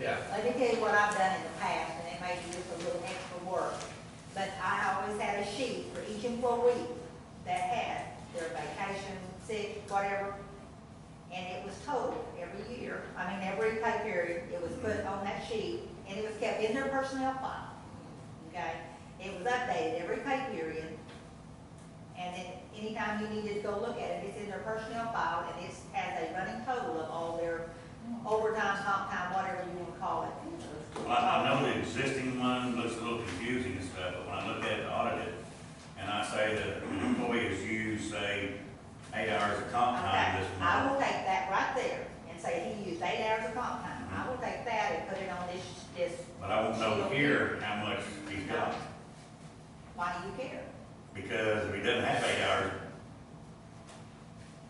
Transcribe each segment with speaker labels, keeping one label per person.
Speaker 1: Yeah.
Speaker 2: Let me tell you what I've done in the past, and it may be just a little extra work, but I always had a sheet for each employee that had their vacation, sick, whatever, and it was total every year, I mean, every pay period, it was put on that sheet, and it was kept in their personnel file, okay? It was updated every pay period, and then anytime you needed to go look at it, it's in their personnel file, and it has a running total of all their overtime, comp time, whatever you want to call it.
Speaker 3: Well, I know the existing one looks a little confusing and stuff, but when I look at it, audit it, and I say that an employee has used, say, eight hours of comp time
Speaker 2: Okay,
Speaker 3: this
Speaker 2: I
Speaker 3: month.
Speaker 2: will take that right there and say he used eight hours of comp time. I will take that and put it on this, this,
Speaker 3: But I won't know here how much he's got,
Speaker 2: why do you care?
Speaker 3: because if he doesn't have eight hours,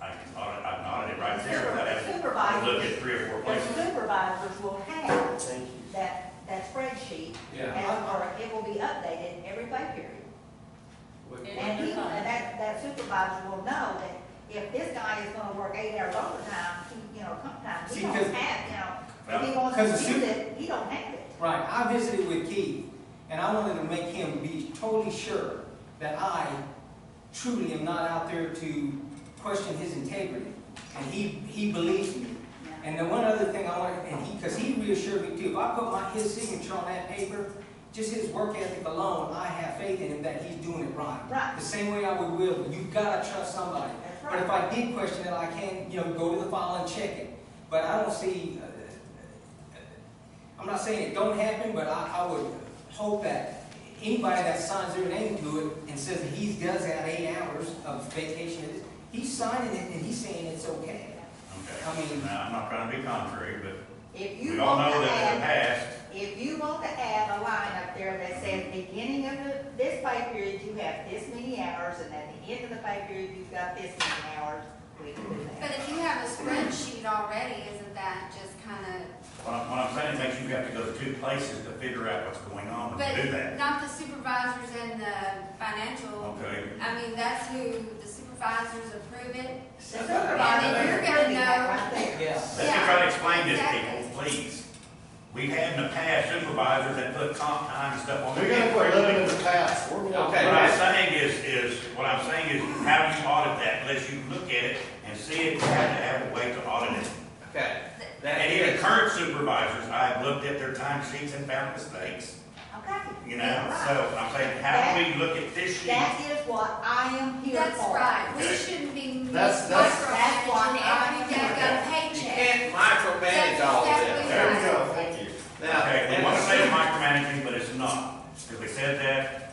Speaker 3: I can audit, I can audit it right there without having to look at three or four
Speaker 2: The
Speaker 3: places.
Speaker 2: supervisors will have
Speaker 4: Thank you.
Speaker 2: that, that spreadsheet,
Speaker 1: Yeah.
Speaker 2: and, or it will be updated every pay period.
Speaker 1: We-
Speaker 2: And he, and that, that supervisor will know that if this guy is gonna work eight hours overtime, he, you know, sometimes he
Speaker 4: See,
Speaker 2: don't
Speaker 4: 'cause-
Speaker 2: have, you know, if
Speaker 3: Well,
Speaker 2: he wants
Speaker 4: because
Speaker 2: to
Speaker 4: the
Speaker 2: use
Speaker 4: sup-
Speaker 2: it, he don't have it.
Speaker 4: Right, I visited with Keith, and I wanted to make him be totally sure that I truly am not out there to question his integrity. And he, he believes me. And then one other thing I want, and he, because he reassured me too, if I put my, his signature on that paper, just his work ethic alone, I have faith in him that he's doing it right.
Speaker 2: Right.
Speaker 4: The same way I would will, you've got to trust somebody.
Speaker 2: That's
Speaker 4: But if
Speaker 2: right.
Speaker 4: I did question it, I can, you know, go to the file and check it. But I don't see, uh, I'm not saying it don't happen, but I, I would hope that anybody that signs their name to it and says that he does have eight hours of vacation, he's signing it and he's saying it's okay. I
Speaker 3: Okay,
Speaker 4: mean-
Speaker 3: now, I'm not trying to be contrary, but
Speaker 2: If
Speaker 3: we
Speaker 2: you
Speaker 3: all
Speaker 2: want
Speaker 3: know
Speaker 2: to
Speaker 3: that in the
Speaker 2: add,
Speaker 3: past,
Speaker 2: if you want to add a line up there that says, beginning of the- this pay period, you have this many hours, and at the end of the pay period, you've got this many hours, we can do
Speaker 5: But
Speaker 2: that.
Speaker 5: if you have a spreadsheet already, isn't that just kind of,
Speaker 3: What I'm, what I'm saying makes you have to go to two places to figure out what's going on and do
Speaker 5: but
Speaker 3: that.
Speaker 5: not the supervisors and the financial?
Speaker 3: Okay,
Speaker 5: I mean, that's who, the supervisors approve it?
Speaker 2: The supervisor
Speaker 5: You're
Speaker 2: is
Speaker 5: gonna
Speaker 2: putting that
Speaker 5: know.
Speaker 2: right there.
Speaker 4: Yeah.
Speaker 3: let's just try to explain this to people, please. We've had in the past supervisors that put comp time and stuff on.
Speaker 6: We're
Speaker 3: their
Speaker 6: gonna quit living in
Speaker 3: What
Speaker 6: the past. We're going-
Speaker 1: Okay.
Speaker 3: I'm saying is, is, what I'm saying is, how do you audit that unless you look at it and see it, you have to have a way to audit it.
Speaker 1: Okay.
Speaker 3: And even current supervisors, I've looked at their time sheets and found mistakes,
Speaker 2: Okay.
Speaker 3: you
Speaker 2: Yeah,
Speaker 3: know,
Speaker 2: right.
Speaker 3: so I'm saying, how do we look at this sheet?
Speaker 2: That is what I am here for.
Speaker 5: That's right, we
Speaker 3: Okay.
Speaker 5: shouldn't be
Speaker 6: That's- that's-
Speaker 2: That's why
Speaker 5: micromanaging every day
Speaker 2: I'm
Speaker 5: I've got a
Speaker 1: You
Speaker 5: paycheck.
Speaker 1: can't micromanage all of this.
Speaker 6: There we go, thank you.
Speaker 1: Now,
Speaker 3: Okay, we
Speaker 1: and
Speaker 3: want to
Speaker 1: the
Speaker 3: say it's micromanaging, but it's not, because we said that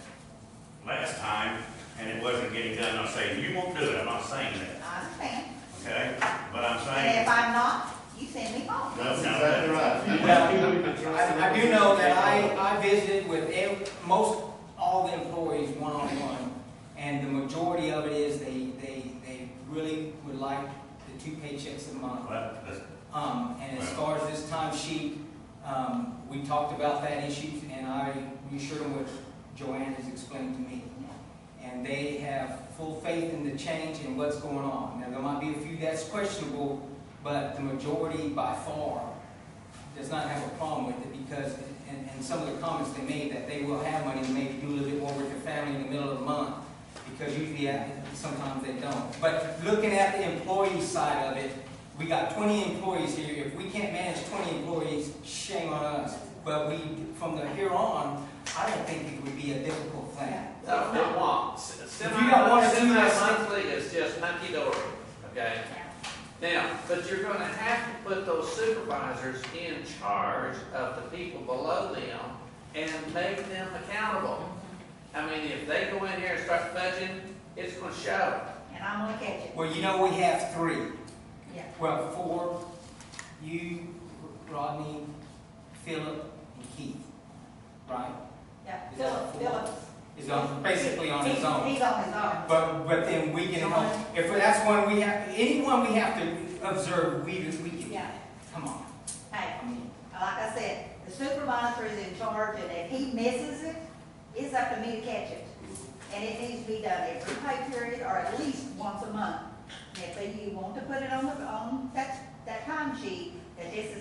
Speaker 3: last time, and it wasn't getting done, I'm saying, you won't do it, I'm not saying that,
Speaker 2: I understand.
Speaker 3: okay? But I'm
Speaker 2: And
Speaker 3: saying,
Speaker 2: if I'm not, you send me home.
Speaker 3: no,
Speaker 6: That's
Speaker 3: no,
Speaker 6: exactly right. If you
Speaker 4: Well,
Speaker 6: want people to trust
Speaker 4: I, I do know that I, I visited with ev- most, all the employees one-on-one, and the majority of it is they, they, they really would like the two paychecks a month.
Speaker 3: well, that's,
Speaker 4: Um, and as far as this time sheet, um, we talked about that issue, and I reassured them what Joanne has explained to me. And they have full faith in the change and what's going on. Now, there might be a few that's questionable, but the majority by far does not have a problem with it because, and, and some of the comments they made, that they will have money and maybe do a little bit more with their family in the middle of the month, because usually, uh, sometimes they don't. But looking at the employee side of it, we got twenty employees here, if we can't manage twenty employees, shame on us. But we, from the here on, I don't think it would be a difficult thing.
Speaker 1: No, it won't. S-
Speaker 4: you don't
Speaker 1: Semi,
Speaker 4: wanna do this-
Speaker 1: semi-monthly is just hunky dory, okay? Now, but you're gonna have to put those supervisors in charge of the people below them and make them accountable. I mean, if they go in here and start budgeting, it's gonna show.
Speaker 2: And I'm gonna catch it.
Speaker 4: Well, you know, we have three,
Speaker 2: Yeah.
Speaker 4: well, four, you, Rodney, Philip, and Keith, right?
Speaker 2: Yeah.
Speaker 4: Is that
Speaker 2: Philip,
Speaker 4: four?
Speaker 2: Philip.
Speaker 4: Is on, basically on his
Speaker 2: He's-
Speaker 4: own.
Speaker 2: He's on his own.
Speaker 4: But, but then we can help, if that's one we have, anyone we have to observe, we, we can,
Speaker 2: Yeah.
Speaker 4: come on.
Speaker 2: Hey,
Speaker 4: I mean,
Speaker 2: like I said, the supervisor is in charge, and if he misses it, it's up to me to catch it. And it needs to be done every pay period, or at least once a month. If you want to put it on the, on that, that time sheet, that this is